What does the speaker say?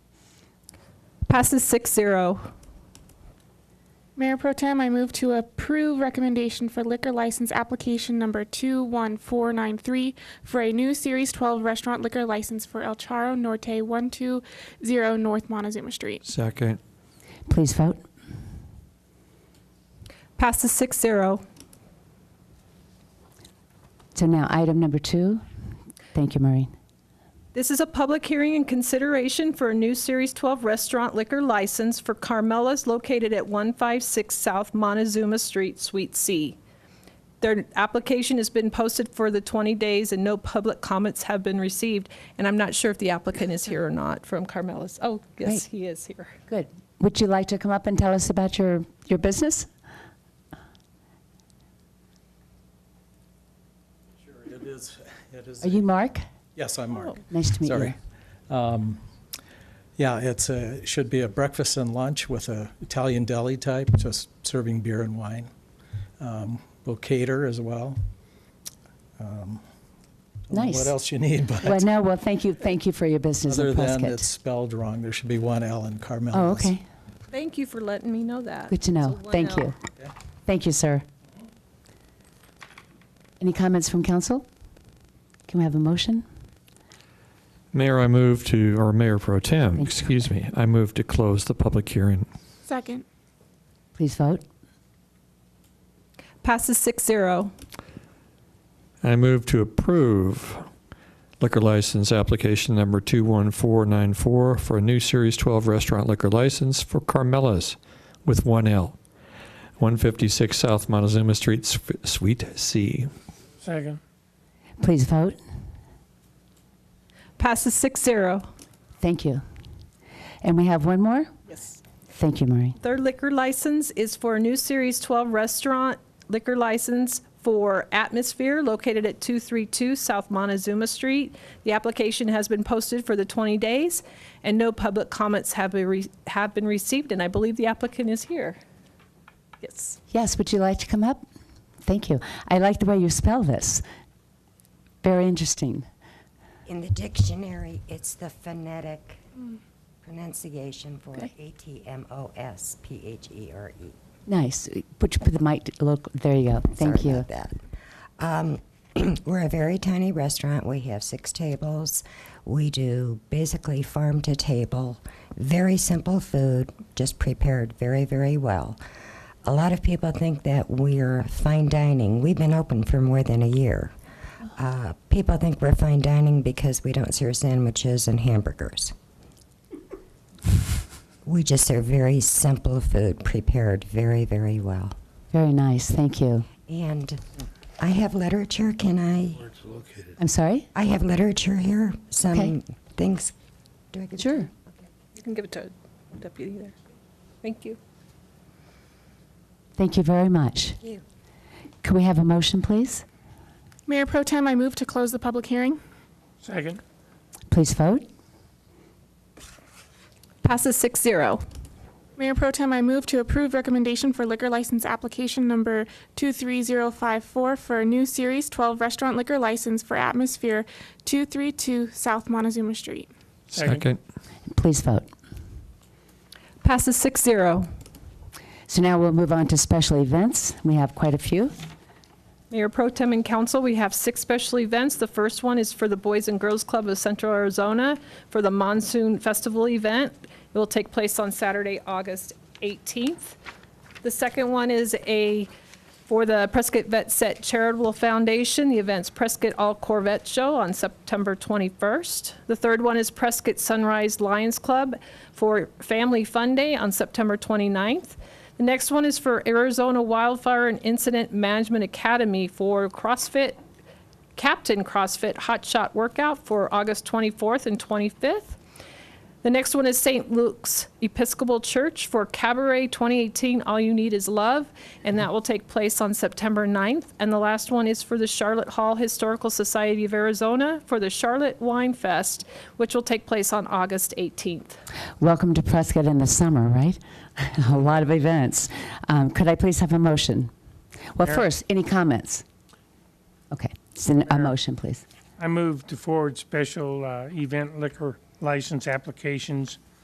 Passes six zero. Mayor Pro Tem, I move to approve recommendation for liquor license application number 21493 for a new Series 12 restaurant liquor license for El Charo Norte 120 North Montezuma Street. Second. Please vote. Passes six zero. So now, item number two. Thank you, Maureen. This is a public hearing and consideration for a new Series 12 restaurant liquor license for Carmela's located at 156 South Montezuma Street, Suite C. Their application has been posted for the 20 days and no public comments have been received. And I'm not sure if the applicant is here or not from Carmela's. Oh, yes, Great. he is here. Good. Would you like to come up and tell us about your, your business? Sure, it is, it is. Are you Oh, Mark? Yes, I'm Mark. Nice to meet you. Sorry. Um, Yeah, it's a, should be a breakfast and lunch with a Italian deli type, just serving beer and wine. Um, We'll cater as well. Um, I don't know Nice. What else you need, but Well, no, well, thank you, thank you for your business other in than it's Prescott. spelled wrong, there should be one L in Carmel. Oh, okay. Thank you for letting me know that. Good to know. It's a Thank 1L. you. Thank you, sir. Any comments from council? Can we have a motion? Mayor, I move to, or Mayor Pro Tem, Thank you. excuse me, I move to close the public hearing. Second. Please vote. Passes six zero. I move to approve liquor license application number 21494 for a new Series 12 restaurant liquor license for Carmela's with one L, 156 South Montezuma Street, Sf- Suite C. Second. Please vote. Passes six zero. Thank you. And we have one more? Yes. Thank you, Maureen. Their liquor license is for a new Series 12 restaurant liquor license for Atmosphere located at 232 South Montezuma Street. The application has been posted for the 20 days, and no public comments have been re- have been received, and I believe the applicant is here. Yes. Yes, would you like to come up? Thank you. I like the way you spell this. Very interesting. In the dictionary, it's the phonetic pronunciation for Okay. A-T-M-O-S-P-H-E-R-E. Nice. Would you put the mic local? There you go. Thank Sorry you. about that. Um, We're a very tiny restaurant. We have six tables. We do basically farm to table, very simple food, just prepared very, very well. A lot of people think that we're fine dining. We've been open for more than a year. Uh, People think we're fine dining because we don't serve sandwiches and hamburgers. We just serve very simple food, prepared very, very well. Very nice. Thank you. And I have literature, can I? I'm sorry? I have literature here, some Okay. things. Do I get- Sure. You can give it to deputy there. Thank you. Thank you very much. Thank you. Could we have a motion, please? Mayor Pro Tem, I move to close the public hearing. Second. Please vote. Passes six zero. Mayor Pro Tem, I move to approve recommendation for liquor license application number 23054 for a new Series 12 restaurant liquor license for Atmosphere 232 South Montezuma Street. Second. Second. Please vote. Passes six zero. So now we'll move on to special events. We have quite a few. Mayor Pro Tem and Council, we have six special events. The first one is for the Boys and Girls Club of Central Arizona for the Monsoon Festival event. It will take place on Saturday, August 18th. The second one is a, for the Prescott Vet Set Charitable Foundation, the event's Prescott All Corvette Show on September 21st. The third one is Prescott Sunrise Lions Club for Family Fun Day on September 29th. The next one is for Arizona Wildfire and Incident Management Academy for CrossFit Captain CrossFit Hot Shot Workout for August 24th and 25th. The next one is St. Luke's Episcopal Church for Cabaret 2018 All You Need Is Love, and that will take place on September 9th. And the last one is for the Charlotte Hall Historical Society of Arizona for the Charlotte Wine Fest, which will take place on August 18th. Welcome to Prescott in the summer, right? a lot of events. Um, could I please have a motion? Well, first, any comments? Okay. So a motion, please. I move to forward special uh, event liquor license applications